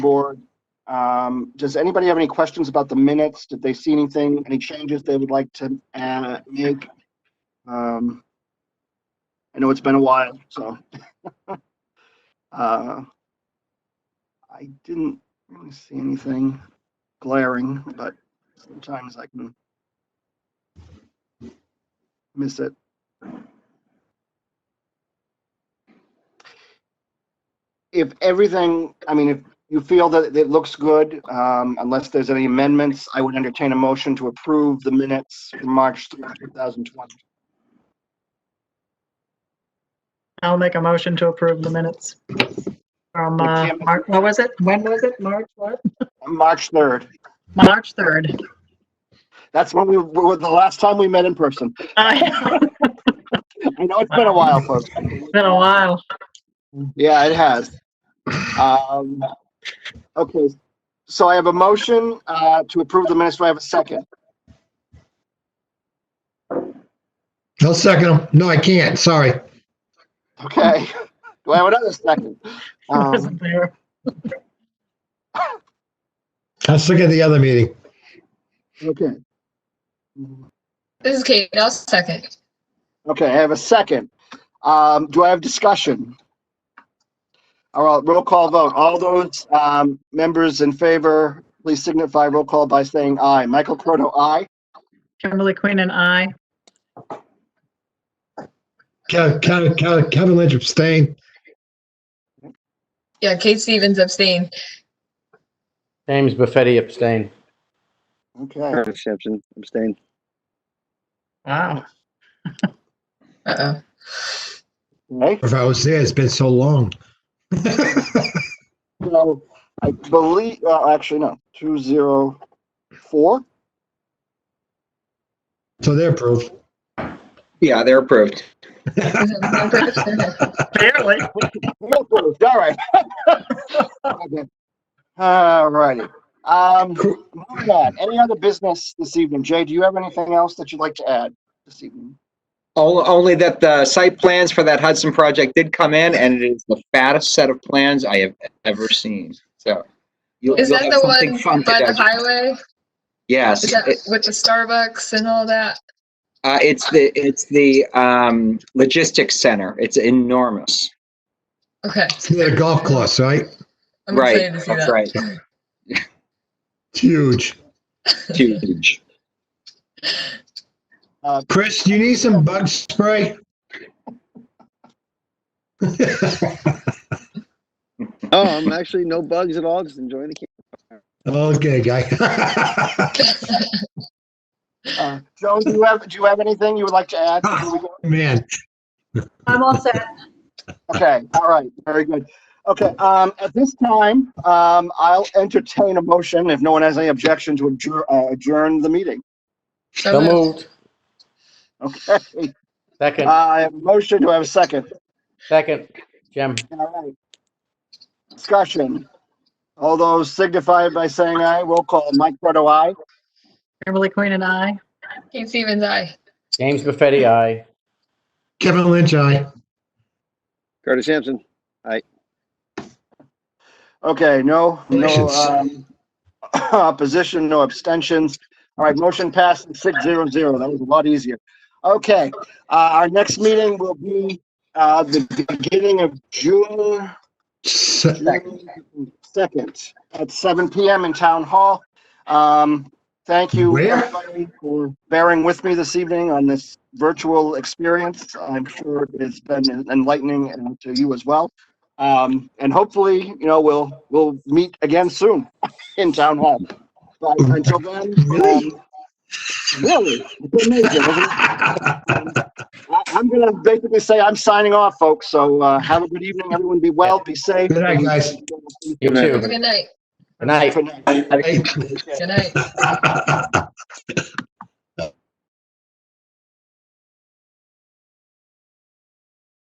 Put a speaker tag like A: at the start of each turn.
A: board. Um, Does anybody have any questions about the minutes? Did they see anything, any changes they would like to uh, make? Um, I know it's been a while, so. Uh, I didn't really see anything glaring, but sometimes I can miss it. If everything, I mean, if you feel that it looks good, um, unless there's any amendments, I would entertain a motion to approve the minutes from March 3rd, 2020.
B: I'll make a motion to approve the minutes. From, uh,
A: Kim.
B: Mar- what was it? When was it? March what?
A: March 3rd.
B: March 3rd.
A: That's when we were the last time we met in person.
B: I-
A: I know it's been a while, folks.
B: It's been a while.
A: Yeah, it has. Um, okay, so I have a motion uh, to approve the minutes. Do I have a second?
C: I'll second him. No, I can't. Sorry.
A: Okay. Do I have another second?
B: I
A: Um,
B: wasn't there.
C: I was looking at the other meeting.
A: okay.
D: This is Kate. I'll second.
A: Okay, I have a second. Um, do I have discussion? All right, roll call vote. All those, um, members in favor, please signify roll call by saying aye. Michael Croto, aye.
B: Kimberly Queen and I.
C: Ke- Ke- Ke- Kevin Lynch abstained.
D: Yeah, Kate Stevens abstain.
E: James Buffetti abstain.
A: Okay,
F: Travis Sampson, abstain.
B: Wow.
D: Uh-oh.
A: okay.
C: If I was there, it's been so long.
A: So I believe, uh, actually, no, two zero four.
C: So they're approved.
G: Yeah, they're approved.
B: Barely.
A: All right. Okay. All righty. Um, moving on. Any other business this evening? Jay, do you have anything else that you'd like to add this evening?
G: O- Only that the site plans for that Hudson project did come in and it is the fattest set of plans I have ever seen. So. you'll-
D: Is
G: you'll
D: that
G: have
D: the
G: something
D: one
G: fun to
D: by the
G: digest.
D: highway?
G: Yes,
D: Is that
G: It-
D: with the Starbucks and all that?
G: uh, it's the, it's the, um, logistics center. It's enormous.
D: Okay.
C: It's near the golf course, right?
D: I'm
G: Right,
D: excited to see
G: that's
D: that.
G: right.
C: It's huge.
G: Huge.
C: Chris, do you need some bug spray?
F: Um, actually, no bugs at all. Just enjoying the camp.
C: okay, guy.
A: Uh, Joan, do you have, do you have anything you would like to add? before we go?
C: Man,
B: I'm all set.
A: Okay, all right, very good. Okay, um, at this time, um, I'll entertain a motion, if no one has any objection, to adjourn, uh, adjourn the meeting.
D: So
E: So
D: moved.
E: moved.
A: Okay, uh,
E: Second,
A: I have a motion, do I have a second?
E: second, Jim.
A: All right. Discussion. All those signify by saying aye, roll call, Mike Proto, aye.
B: Kimberly Queen and I.
D: Kate Stevens, aye.
E: James Buffetti, aye.
C: Kevin Lynch, I.
F: Curtis Sampson.
A: Okay, no, no,
C: Congratulations.
A: um, opposition, no abstentions. All right, motion passed six zero zero. That was a lot easier. Okay, uh, our next meeting will be, uh, the beginning of June, June second, at seven PM in Town Hall. Um, thank you
C: Where?
A: everybody for bearing with me this evening on this virtual experience. I'm sure it's been enlightening and to you as well. Um, and hopefully, you know, we'll, we'll meet again soon in Town Hall. But until then. um,
C: Really?
A: Really? It's amazing, isn't it? I- I'm gonna basically say I'm signing off, folks. So, uh, have a good evening. Everyone be well, be safe. uh,
C: Good night, guys.
E: You
F: Good night.
E: too.
D: Good night.
E: Good night.
A: Good night.
D: Good night.